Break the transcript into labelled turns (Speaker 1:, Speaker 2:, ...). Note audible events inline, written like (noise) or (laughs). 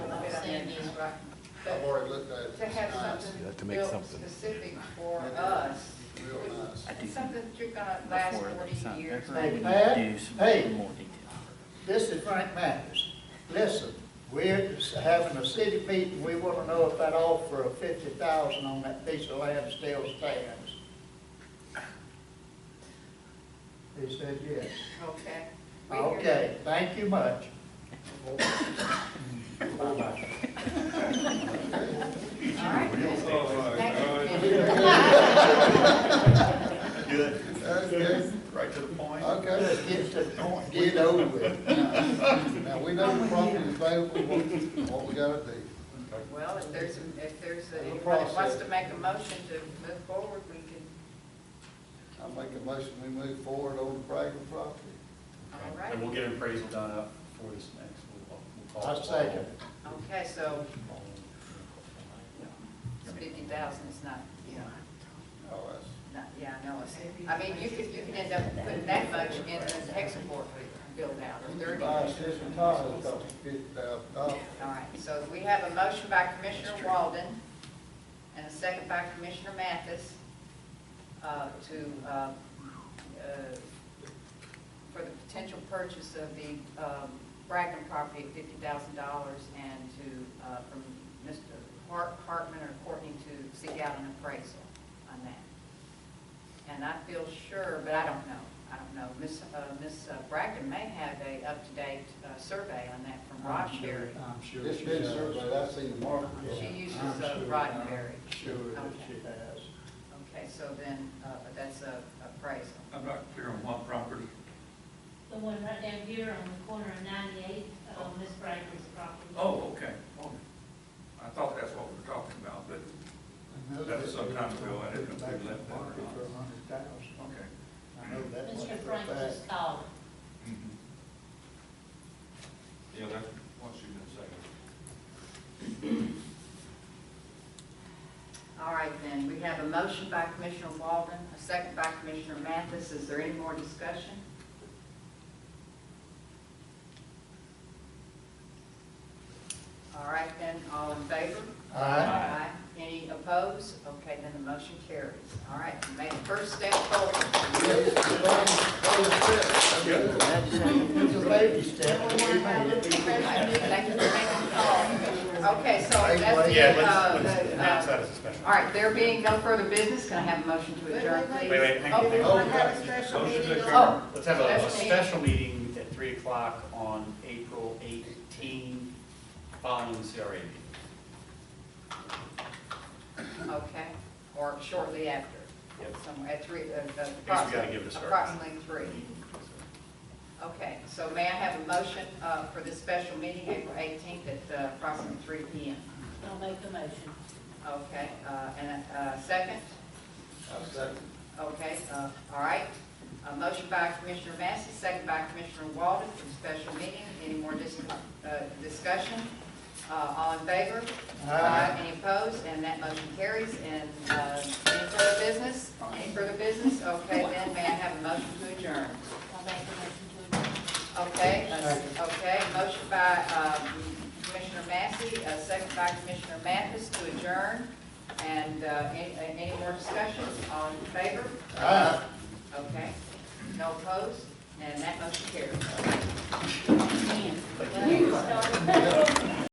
Speaker 1: it is, right?
Speaker 2: I've
Speaker 1: But
Speaker 2: already looked at it.
Speaker 1: to have
Speaker 2: It's nice.
Speaker 1: something
Speaker 3: Ah, You have to make
Speaker 1: built
Speaker 3: something.
Speaker 1: specific for us,
Speaker 2: Real nice.
Speaker 4: I do think
Speaker 1: something that you're gonna last
Speaker 4: before they
Speaker 1: forty
Speaker 4: sign the
Speaker 1: years,
Speaker 4: paper,
Speaker 1: maybe.
Speaker 4: we need
Speaker 5: Pat,
Speaker 4: to do some
Speaker 5: hey.
Speaker 4: more detail.
Speaker 5: This is Frank Mathis. Listen, we're having a city meeting, we want to know if that offer of fifty thousand on that piece of land still stands. He said yes.
Speaker 1: Okay. We hear
Speaker 5: Okay, thank you much.
Speaker 1: you. All right. (laughs) Thank you.
Speaker 6: Good,
Speaker 2: Okay,
Speaker 6: right to the point.
Speaker 2: okay.
Speaker 5: Just get to the point, get it over with.
Speaker 2: Now, we know the property is available, what, what we gotta do.
Speaker 1: Well, if there's, a- if there's, a-
Speaker 5: Little
Speaker 1: anybody that wants
Speaker 5: process.
Speaker 1: to make a motion to move forward, we can,
Speaker 2: I make a motion, we move forward on the Bragg property.
Speaker 1: all right.
Speaker 6: And we'll get an appraisal done up for this next, we'll, we'll call.
Speaker 5: I second.
Speaker 1: Okay, so fifty thousand is not, you know,
Speaker 2: Oh, that's,
Speaker 1: not, yeah, I know it's, I mean, you could, you could end up putting that much in the export build out, or thirty.
Speaker 2: my
Speaker 1: All
Speaker 2: assistant Todd is talking fifty thousand dollars.
Speaker 1: right, so we have a motion by Commissioner Walden and a second by Commissioner Mathis, uh, to, uh, uh, for the potential purchase of the, um, Bragdon property at fifty thousand dollars and to, uh, from Mr. Hart, Hartman or Courtney to seek out an appraisal on that. And I feel sure, but I don't know, I don't know, Miss uh, Miss Bragdon may have a up-to-date, uh, survey on that from Ross Sherry.
Speaker 5: I'm sure
Speaker 2: It's
Speaker 5: she
Speaker 2: been
Speaker 5: does.
Speaker 2: surveyed, I seen the market.
Speaker 1: She uses
Speaker 5: I'm
Speaker 1: uh,
Speaker 5: sure-
Speaker 1: Roddenberry.
Speaker 5: I'm Sure that she has.
Speaker 1: Okay, so then, uh, but that's a appraisal.
Speaker 6: I'm not clear on what property.
Speaker 7: The one right down here on the corner of ninety-eight, um, Miss Bragdon's property.
Speaker 8: Oh, okay. Oh, I thought that's what we were talking about, but, That was some time ago, I didn't know if we left that or
Speaker 5: Market
Speaker 8: not.
Speaker 5: for a hundred thousand.
Speaker 8: okay.
Speaker 5: I know that much
Speaker 7: Mr.
Speaker 5: for a
Speaker 7: Frank
Speaker 5: fact.
Speaker 7: just called.
Speaker 8: Yeah, that's what you been saying.
Speaker 1: All right, then, we have a motion by Commissioner Walden, a second by Commissioner Mathis. Is there any more discussion? All right, then, all in favor? Aye. Any opposed? Okay, then the motion carries. All right, you made the first step forward.
Speaker 5: It's a baby step. but we made it.
Speaker 1: Thank you for making the call. Okay, so that's the,
Speaker 6: Yeah,
Speaker 1: uh,
Speaker 6: let's, let's
Speaker 1: the,
Speaker 6: announce
Speaker 1: uh,
Speaker 6: that as a special.
Speaker 1: all right, there being no further business, can I have a motion to adjourn, please?
Speaker 6: Wait, wait, hang on, hang
Speaker 2: Oh,
Speaker 6: on.
Speaker 2: we have a
Speaker 1: special
Speaker 8: Motion to meeting on- adjourn.
Speaker 1: Oh,
Speaker 6: Let's have a- a
Speaker 1: Special
Speaker 6: special meeting at three o'clock on April eighteen, following the CRA meeting.
Speaker 1: okay, or shortly after,
Speaker 6: Yep.
Speaker 1: somewhere at three, uh, uh,
Speaker 6: gotta give it a
Speaker 1: approximately,
Speaker 6: start.
Speaker 1: approximately three. Okay, so may I have a motion uh, for this special meeting, April 18th, at uh, approximately three PM?
Speaker 7: I'll make the motion.
Speaker 1: Okay, uh, and a second?
Speaker 2: I second.
Speaker 1: Okay, uh, all right. A motion by Commissioner Massey, second by Commissioner Walden for the special meeting. Any more dis- uh, discussion? Uh, All in favor? Aye. Any opposed? And that motion carries. And uh, any further business? Any further business? Okay, then may I have a motion to adjourn?
Speaker 7: I'll make the motion to adjourn.
Speaker 1: Okay, uh, okay, motion by um, Commissioner Massey, uh, second by Commissioner Mathis to adjourn. And uh, any any more discussions? All in favor?
Speaker 5: Aye.
Speaker 1: Okay, no opposed, and that motion carries.
Speaker 7: You started.